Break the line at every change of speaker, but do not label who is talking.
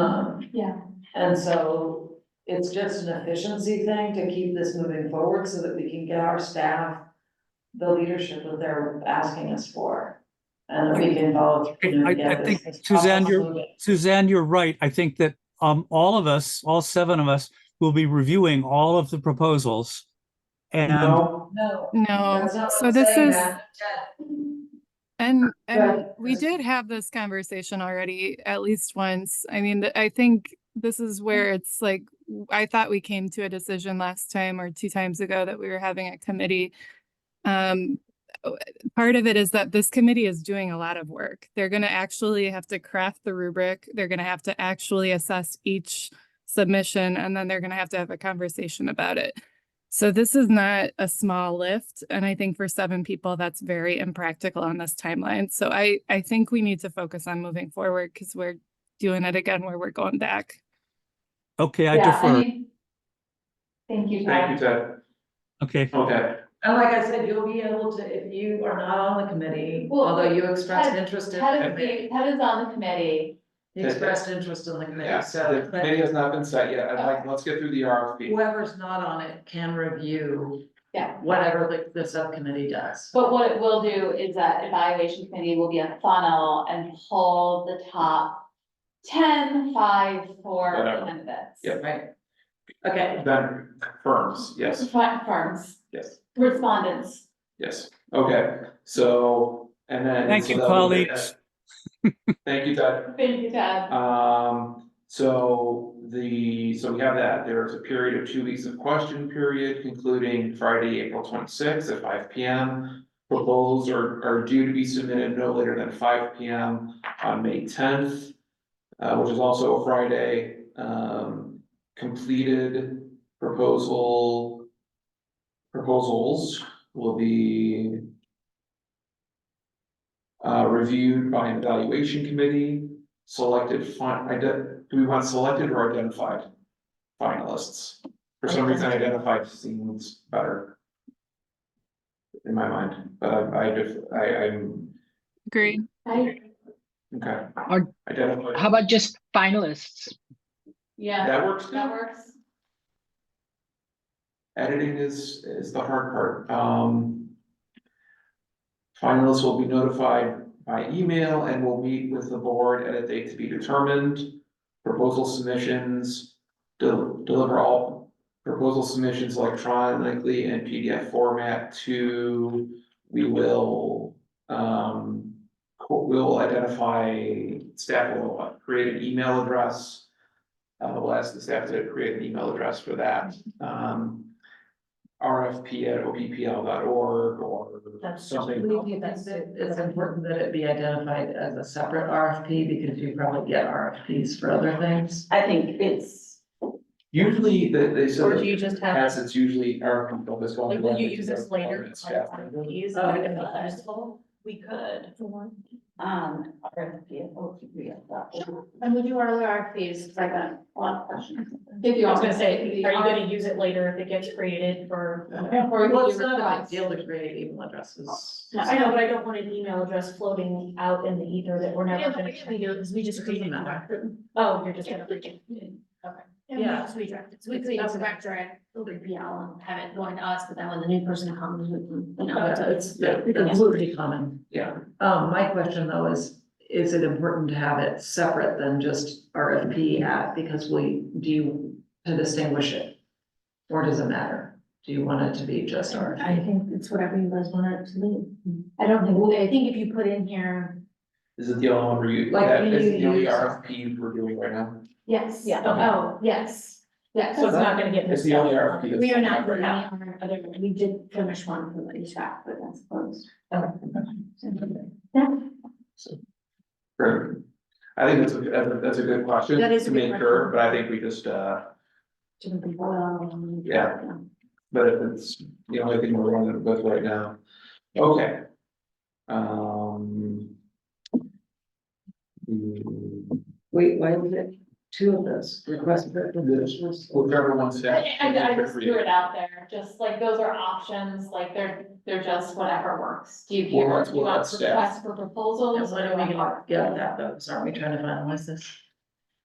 Um,
Yeah.
and so it's just an efficiency thing to keep this moving forward so that we can get our staff the leadership that they're asking us for. And that we can follow through
I- I
and get this.
think,
this
Suzanne,
process
you're-
moving.
Suzanne, you're right. I think that um all of us, all seven of us, will be reviewing all of the proposals. And
No, no.
No,
that's not what
so
I'm
this
saying,
is-
Matt.
and, and
ahead.
we did have this conversation already at least once. I mean, th- I think this is where it's like, w- I thought we came to a decision last time or two times ago that we were having a committee. Um, o- part of it is that this committee is doing a lot of work. They're gonna actually have to craft the rubric. They're gonna have to actually assess each submission, and then they're gonna have to have a conversation about it. So this is not a small lift, and I think for seven people, that's very impractical on this timeline. So I, I think we need to focus on moving forward because we're doing it again where we're going back.
okay, I
Yeah,
defer.
mean, Thank you,
Thank you,
Tom.
Ted.
Okay,
Okay,
And like I said, you'll be able to, if you are not on the committee,
Well,
although you expressed
Ted-
interest in the
Ted is,
committee,
Ted is on the committee.
you expressed interest in the
yeah,
committee,
the
so. but-
committee has not been set yet, I'd like, let's get through the RFP.
whoever's not on it can review.
Yeah.
Whatever the, the subcommittee does.
But what it will do is that evaluation committee will be a funnel and pull the top ten, five, four
Whatever.
candidates.
Yeah.
Right. Okay,
Then firms, yes,
Fi- Firms,
yes,
respondents.
yes, okay, so, and then.
Thank
so
you,
that will be-
colleagues.
Thank you, Ted.
Thank you, Ted.
Um, so the, so we have that, there's a period of two weeks of question period concluding Friday, April twenty-sixth at five P M. Proposals are, are due to be submitted no later than five P M on May tenth, uh, which is also a Friday. Um, completed proposal proposals will be uh, reviewed by an evaluation committee selected, fin- ide- do we want selected or identified finalists? For some reason, identified seems better. In my mind, but I, I just, I, I'm,
Agreed.
I-
okay.
Or- How
Identified,
about just finalists?
Yeah,
that works,
that works.
editing is, is the hard part, um. Finalists will be notified by email and will meet with the board at a date to be determined. Proposal submissions, del- deliver all proposal submissions electronically in PDF format to, we will, um. co- We'll identify, staff will uh, create an email address. Uh, we'll ask the staff to create an email address for that, um. RFP at OPPL.org or
that's,
something.
that's, it's important that it be identified as a separate RFP because you probably get RFPs for other things.
I think it's.
Usually they they
Or
said
do
that
you just have,
as it's usually our people that's going.
like,
to
will you
run
use
it,
this
they're
later?
permanent staff member.
Use
Oh,
it
okay.
as well? We could.
For one.
Um, RFP, OPPL dot org.
And we do our other RFPs, because I got a lot of questions. If you
I
want
was gonna
to
say,
say.
are you gonna use it later if it gets created for?
Or
Well,
you
it's
do
not a big
response.
deal to create email addresses.
I know, but I don't want an email address floating out in the ether that we're never gonna.
because we just
created one.
Oh, you're just gonna.
Yeah.
we direct it, so we could either direct it, it'll be PL and have it going to us, but then when the new person comes, we can, you know.
Uh, It's, it's completely common.
Yeah,
Um, my question though is, is it important to have it separate than just RFP at, because we, do you, to distinguish it? Or does it matter? Do you want it to be just RFP?
think it's whatever you guys want it to be.
I don't think, I think if you put in here.
is it the only one we're using?
Like,
That
you
is the only
use-
RFP we're doing right now.
Yes.
Yeah.
Oh, yes, yes.
So it's not gonna get.
It's
missed
the only
out.
RFP. that's
We are
out
not,
right
doing
now.
any other, other- we did finish one from the shop, but that's closed.
Oh. Great. I think that's a, that's a- that's a good question
That is a
to
good
make sure, but I think we just, uh,
Shouldn't be boiled.
Yeah. but if it's the only thing we're running with right now. Okay. Um. mm,
Wait, why was it two of those requests for
proposals? Whichever one's.
I, I I just threw it out there, just like those are options, like they're, they're just whatever works. Do you
Well,
care,
that's-
do you
well,
want
that's staff.
requests for proposals?
Why
or
don't we
what?
get that though? Aren't we trying to finalize this?